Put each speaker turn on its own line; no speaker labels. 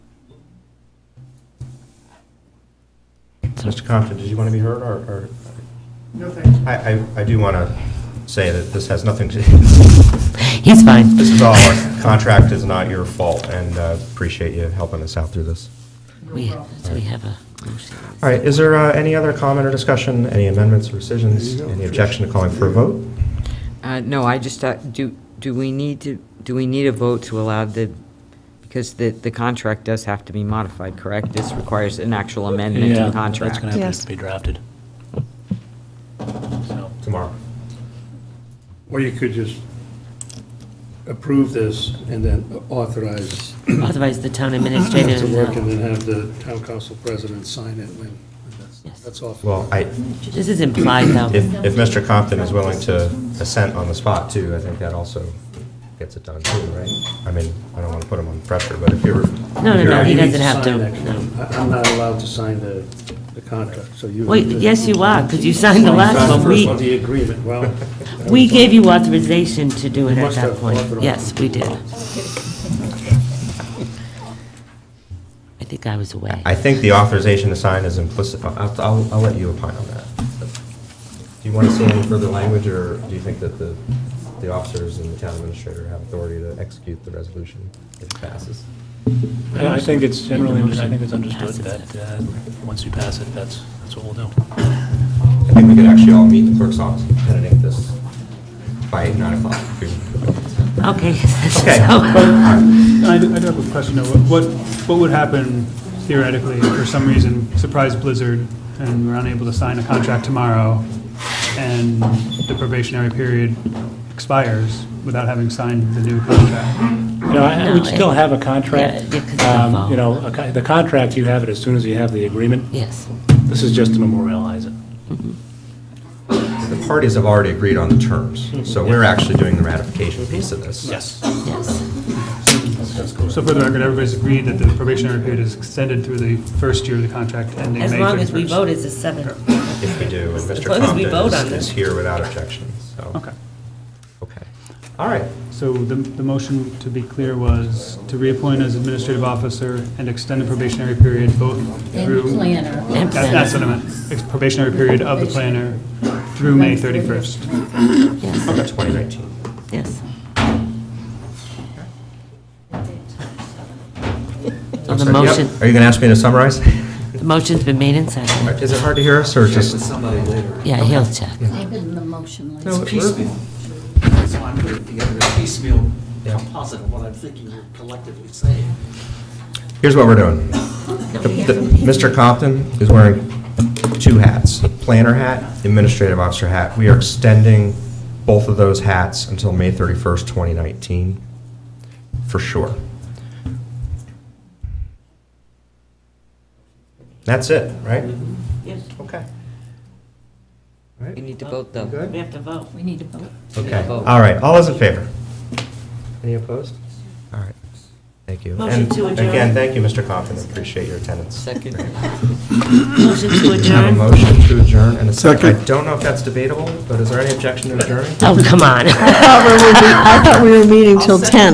Mr. Compton, did you want to be heard, or, or,
No, thanks.
I, I, I do want to say that this has nothing to, this
He's fine.
is all, our contract is not your fault, and uh, appreciate you helping us out through this.
We, so we have a motion.
All right, is there uh, any other comment or discussion, any amendments, rescissions, any objection to calling for a vote?
Uh, No, I just, uh, do, do we need to, do we need a vote to allow the, because the, the contract does have to be modified, correct? This requires an actual amendment to
Yeah,
the
that's
contract.
going to have
Yes.
to be drafted. So,
Tomorrow.
Or you could just approve this and then authorize
Otherwise, the town administrator.
to work and then have the town council president sign it when,
Yes.
that's, that's off.
Well, I,
This is implied, though.
if, if Mr. Compton is willing to assent on the spot, too, I think that also gets it done, too, right? I mean, I don't want to put him on pressure, but if you're,
No, no, no, he
You need
doesn't have to.
sign it.
no.
I- I'm not allowed to sign the, the contract, so you.
Wait, yes, you are, because you signed the last
Sign
one.
the
We,
first one, the agreement, well.
we gave you authorization to do it at
must
that
have
point.
authorized.
Yes, we did. I think I was away.
I think the authorization to sign is implicit, I'll, I'll, I'll let you opine on that. Do you want to see any further language, or do you think that the, the officers and the town administrator have authority to execute the resolution if it passes?
I I think it's generally, I think it's understood
Passes
that,
it.
uh, once you pass it, that's, that's what we'll do.
I think we could actually all meet in the clerk's office and pen it in this by nine o'clock.
Okay.
Okay.
So-
I do I do have a question, though. What, what would happen theoretically if for some reason, surprise blizzard, and we're unable to sign a contract tomorrow, and the probationary period expires without having signed the new contract?
You know, I-
No,
we'd still
it-
have a
yeah,
contract.
it could still
Um,
follow.
You know, a co- the contract, you have it as soon as you have the agreement.
Yes.
This is just to memorialize it.
The parties have already agreed on the terms, so we're actually doing the ratification piece of this.
Yes.
Mm-hmm. Yes.
So for the record, everybody's agreed that the probationary period is extended through the first year of the contract ending May 31st.
As long as we vote as a seven.
If we do, and Mr.
As long as we vote on
Compton
this.
is- is here without objection, so.
Okay.
Okay. All right.
So the, the motion, to be clear, was to reappoint as administrative officer and extend the probationary period both through...
And planner.
And
That- That's what I
planner.
meant. Ex- Probationary period of the planner through May 31st.
Yes,
Okay. 2019.
yes. So the motion,
Are you going to ask me to summarize?
the motion's been made and seconded.
Is it hard to hear us, or just?
Yeah, he'll check.
I've been in the motion lately.
No, we're-
piecemeal. That's why I'm putting together a piecemeal
Yeah.
composite of what I'm thinking you're collectively saying.
Here's what we're doing. The- the- Mr. Compton is wearing two hats, planner hat, administrative officer hat. We are extending both of those hats until May 31st, 2019, for sure. That's it, right?
Yes,
Okay.
We need to vote, though.
Good?
have to vote.
We need to vote.
Okay,
Vote.
all right, all those in favor? Any opposed? All right, thank you.
Motion
And
to adjourn.
Again, thank you, Mr. Coffin, appreciate your attendance.
Second.
Motion to
We have a
adjourn.
motion to adjourn and a second. I don't know if that's debatable, but is there any objection to adjourning?
Oh, come on.
I thought we were meeting till 10.